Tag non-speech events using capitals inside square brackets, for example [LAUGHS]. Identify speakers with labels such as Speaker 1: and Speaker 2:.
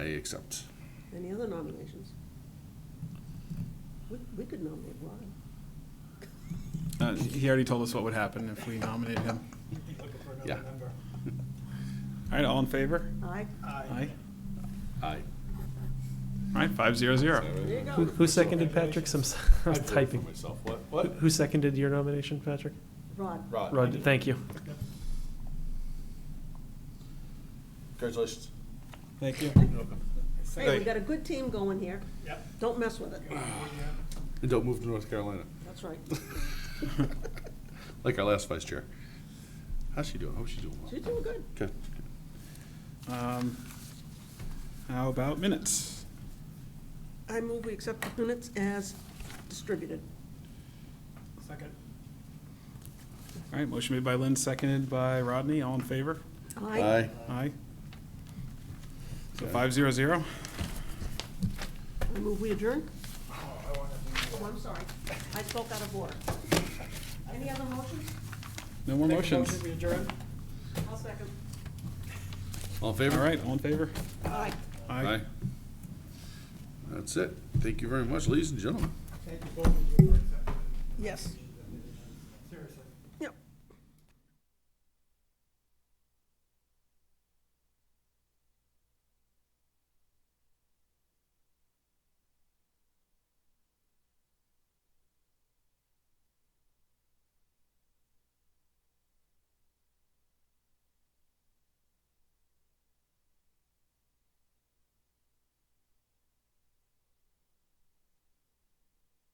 Speaker 1: accept.
Speaker 2: Any other nominations? We, we could nominate Ron.
Speaker 3: Uh, He already told us what would happen if we nominated him.
Speaker 4: Looking for
Speaker 1: Yeah.
Speaker 4: another member.
Speaker 3: All right, all in favor?
Speaker 2: Aye,
Speaker 3: Aye.
Speaker 1: Aye.
Speaker 3: All right, five zero zero.
Speaker 2: there you
Speaker 5: Who,
Speaker 2: go.
Speaker 5: who seconded Patrick's? [LAUGHS] I'm s- I was typing.
Speaker 6: Myself, what,
Speaker 5: Who-
Speaker 6: what?
Speaker 5: Who seconded your nomination, Patrick?
Speaker 2: Rod,
Speaker 6: Rod.
Speaker 5: Rod, thank you.
Speaker 6: Congratulations.
Speaker 3: Thank you.
Speaker 2: hey, we got a good team going here.
Speaker 4: Yep.
Speaker 2: Don't mess with it.
Speaker 1: And don't move to North
Speaker 6: [LAUGHS]
Speaker 1: Carolina,
Speaker 2: That's right.
Speaker 1: like our last vice chair. How's she doing? I hope she's doing well.
Speaker 2: She's doing good.
Speaker 1: Good.
Speaker 3: Um, How about minutes?
Speaker 2: I move we accept the minutes as distributed.
Speaker 4: Second.
Speaker 3: All right, motion made by Lynn, seconded by Rodney. All in favor?
Speaker 2: Aye.
Speaker 3: Aye. So five zero zero.
Speaker 2: I move we adjourn.
Speaker 4: Oh, I want to do.
Speaker 2: Oh, I'm sorry. I spoke out of order. Any other motions?
Speaker 3: No more
Speaker 4: Make a
Speaker 3: motions.
Speaker 4: motion, we adjourn?
Speaker 2: I'll second.
Speaker 1: All in favor?
Speaker 3: All right, all in favor?
Speaker 2: Aye.
Speaker 1: Aye. That's it. Thank you very much, ladies and gentlemen.
Speaker 4: Thank you both of you for accepting.
Speaker 2: Yes.